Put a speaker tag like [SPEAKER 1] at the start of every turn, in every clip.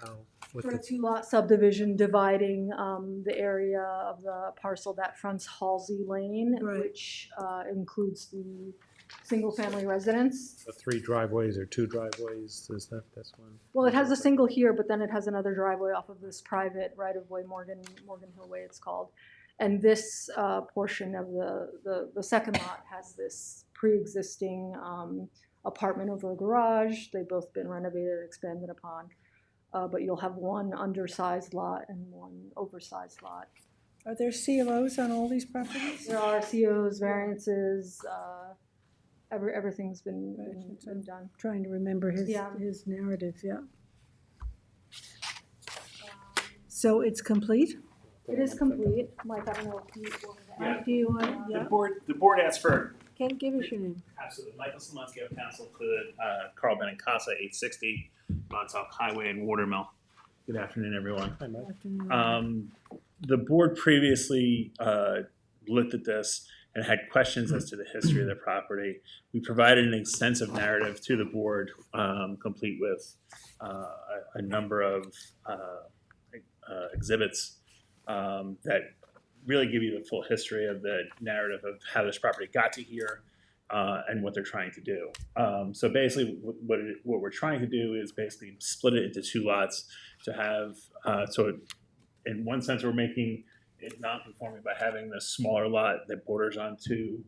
[SPEAKER 1] how, what
[SPEAKER 2] For a
[SPEAKER 1] the,
[SPEAKER 2] two-lot subdivision dividing um, the area of the parcel that fronts Halsey Lane,
[SPEAKER 3] Right.
[SPEAKER 2] which uh, includes the single-family residence.
[SPEAKER 1] the three driveways or two driveways, is that this one?
[SPEAKER 2] Well, it has a single here, but then it has another driveway off of this private right-of-way, Morgan, Morgan Hill Way it's called. And this uh, portion of the, the, the second lot has this pre-existing um, apartment over a garage. They've both been renovated, and expanded upon. Uh, But you'll have one undersized lot and one oversized lot.
[SPEAKER 3] Are there CLOs on all these properties?
[SPEAKER 2] There are COs, variances, uh, every, everything's been,
[SPEAKER 3] Right,
[SPEAKER 2] been-
[SPEAKER 3] it's
[SPEAKER 2] been done.
[SPEAKER 3] Trying to remember his,
[SPEAKER 2] Yeah.
[SPEAKER 3] his narrative, yeah. So it's complete?
[SPEAKER 2] It is complete, Mike, I don't know if you want to add.
[SPEAKER 4] Yeah.
[SPEAKER 3] Do you want,
[SPEAKER 4] The
[SPEAKER 3] yeah,
[SPEAKER 4] board, the board asked for,
[SPEAKER 3] can give us your name.
[SPEAKER 4] absolutely, Michael Simonsky of Council to uh, Carl Benincasa, eight sixty, Montauk Highway in Watermill. Good afternoon, everyone.
[SPEAKER 1] Hi, Mike.
[SPEAKER 3] Afternoon.
[SPEAKER 4] Um, the board previously, uh, looked at this and had questions as to the history of the property. We provided an extensive narrative to the board, um, complete with, uh, a- a number of, uh, uh, exhibits, um, that really give you the full history of the narrative of how this property got to here, uh, and what they're trying to do. Um, so basically, wh- what, it- what we're trying to do is basically split it into two lots to have, uh, so it in one sense, we're making it non-conforming by having the smaller lot that borders onto,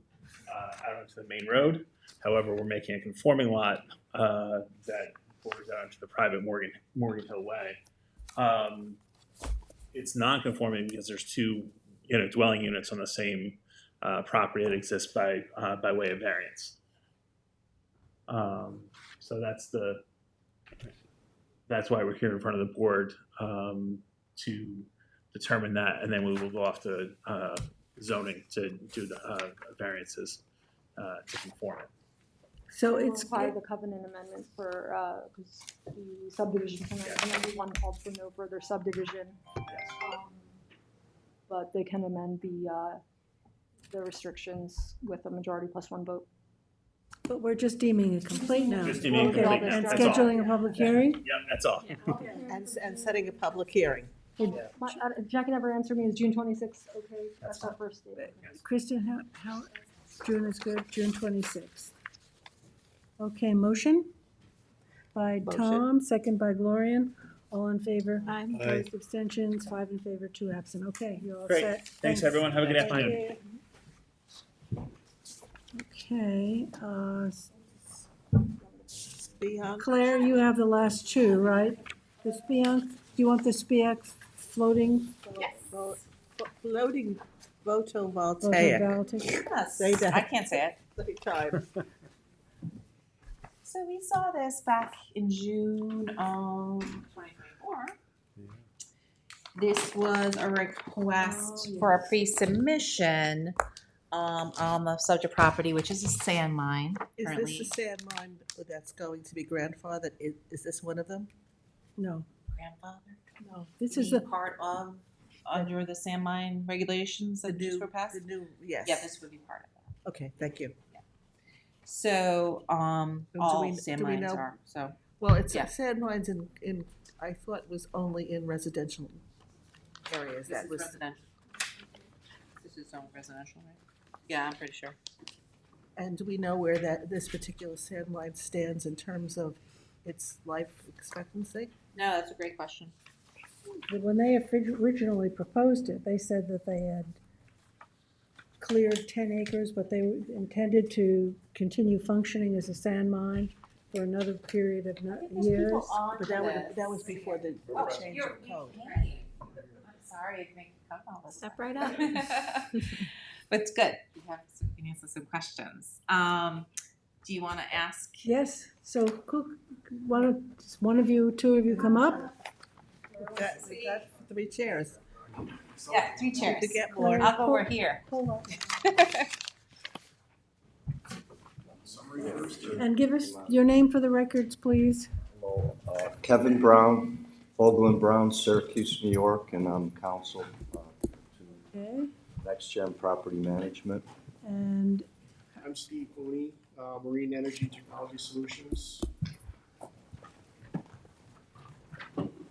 [SPEAKER 4] uh, out onto the main road. However, we're making a conforming lot, uh, that borders out onto the private Morgan, Morgan Hill Way. Um, it's non-conforming because there's two, you know, dwelling units on the same, uh, property that exists by, uh, by way of variance. Um, so that's the, that's why we're here in front of the board, um, to determine that, and then we will go off to uh, zoning to do the uh, variances uh, to conform it.
[SPEAKER 3] So
[SPEAKER 2] We'll
[SPEAKER 3] it's,
[SPEAKER 2] Apply the covenant amendment for, uh, 'cause the subdivision, amendment, and then the one called for no further subdivision. Um, But they can amend the, uh, the restrictions with a majority plus one vote.
[SPEAKER 3] but we're just deeming it complete now.
[SPEAKER 4] Just deeming it
[SPEAKER 3] Okay,
[SPEAKER 4] complete
[SPEAKER 2] now,
[SPEAKER 3] And
[SPEAKER 2] that's all.
[SPEAKER 3] scheduling a public hearing?
[SPEAKER 4] Yep, that's all.
[SPEAKER 5] And, s- and setting a public hearing.
[SPEAKER 2] My- uh, Jackie never answered me, is June twenty-sixth okay? That's our first date.
[SPEAKER 3] Kristen, how, how, June is good, June twenty-sixth. Okay, motion by
[SPEAKER 5] Motion.
[SPEAKER 3] Tom, second by Gloria, all in favor? Aye.
[SPEAKER 1] Aye.
[SPEAKER 3] Opposed, abstentions, five in favor, two absent, okay, you're all
[SPEAKER 4] Great.
[SPEAKER 3] set.
[SPEAKER 4] Thanks, everyone. Have a good
[SPEAKER 3] Thank
[SPEAKER 4] afternoon.
[SPEAKER 3] you. Okay, uh, s-
[SPEAKER 5] Beyond,
[SPEAKER 3] Claire, you have the last two, right? The SPIAC, do you want the SPIAC floating?
[SPEAKER 5] flo- floating photovoltaic.
[SPEAKER 3] photovoltaic?
[SPEAKER 6] Yes,
[SPEAKER 5] Say that.
[SPEAKER 6] I can't say it.
[SPEAKER 5] Every time.
[SPEAKER 6] So we saw this back in June of twenty twenty-four. This was a request for a pre-submission, um, on the subject property, which is a sand mine
[SPEAKER 5] Is this
[SPEAKER 6] currently.
[SPEAKER 5] the sand mine that's going to be grandfathered? Is, is this one of them?
[SPEAKER 3] No,
[SPEAKER 6] Grandfather,
[SPEAKER 3] no, this is
[SPEAKER 6] being
[SPEAKER 3] the,
[SPEAKER 6] Part of, under the sand mine regulations
[SPEAKER 5] The
[SPEAKER 6] that just
[SPEAKER 5] new,
[SPEAKER 6] were passed?
[SPEAKER 5] the new, yes.
[SPEAKER 6] Yeah, this would be part of that.
[SPEAKER 5] Okay, thank you.
[SPEAKER 6] So, um,
[SPEAKER 5] Do we-
[SPEAKER 6] all sand
[SPEAKER 5] do we
[SPEAKER 6] mines
[SPEAKER 5] know-
[SPEAKER 6] are, so.
[SPEAKER 5] Well, it's,
[SPEAKER 6] Yeah.
[SPEAKER 5] sand mines in, in, I thought was only in residential areas.
[SPEAKER 6] This
[SPEAKER 5] That
[SPEAKER 6] is
[SPEAKER 5] was,
[SPEAKER 6] residential. This is zone residential, right? Yeah, I'm pretty sure.
[SPEAKER 5] and do we know where that, this particular sand mine stands in terms of its life expectancy?
[SPEAKER 6] No, that's a great question.
[SPEAKER 3] when they orig- originally proposed it, they said that they had cleared ten acres, but they intended to continue functioning as a sand mine for another period of
[SPEAKER 6] I
[SPEAKER 3] no-
[SPEAKER 6] think there's
[SPEAKER 3] years.
[SPEAKER 6] people on
[SPEAKER 5] But that was,
[SPEAKER 6] this.
[SPEAKER 5] that was before the the
[SPEAKER 6] Oh,
[SPEAKER 5] change
[SPEAKER 6] you're,
[SPEAKER 5] of
[SPEAKER 6] you're
[SPEAKER 5] code.
[SPEAKER 6] paying. I'm sorry to make you come all this.
[SPEAKER 7] Step
[SPEAKER 6] way.
[SPEAKER 7] right up.
[SPEAKER 6] But it's good. We have some, we can answer some questions. Um, do you wanna ask?
[SPEAKER 3] Yes, so cook, one of, one of you, two of you come up?
[SPEAKER 5] We've got- we've got Three chairs.
[SPEAKER 6] Yeah,
[SPEAKER 5] We
[SPEAKER 6] three
[SPEAKER 5] need
[SPEAKER 6] chairs.
[SPEAKER 5] To get more.
[SPEAKER 6] I'll go over here.
[SPEAKER 3] And give us your name for the records, please.
[SPEAKER 8] Uh, Kevin Brown, Vogel and Brown, Syracuse, New York, and I'm counsel uh, to
[SPEAKER 3] Okay.
[SPEAKER 8] Next Gen Property Management.
[SPEAKER 3] And
[SPEAKER 9] I'm Steve Cooney, uh, Marine Energy Technology Solutions.